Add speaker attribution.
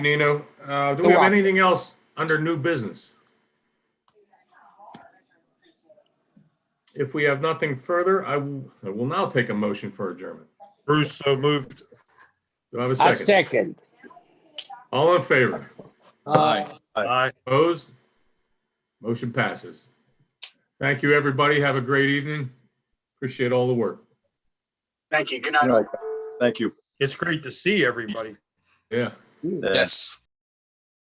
Speaker 1: Nino. Uh, Do
Speaker 2: Go
Speaker 1: we have
Speaker 2: on.
Speaker 1: anything else under new business? If we have nothing further, I will, I will now take a motion for adjournment.
Speaker 3: Bruce, so moved.
Speaker 1: Do I have a
Speaker 2: I
Speaker 1: second?
Speaker 2: second.
Speaker 1: All in favor?
Speaker 2: Aye.
Speaker 3: Aye.
Speaker 1: Opposed? Motion passes. Thank you, everybody. Have a great evening. Appreciate all the work.
Speaker 4: Thank you. Good night.
Speaker 3: It's great to see everybody.
Speaker 1: Yeah.
Speaker 5: Yes.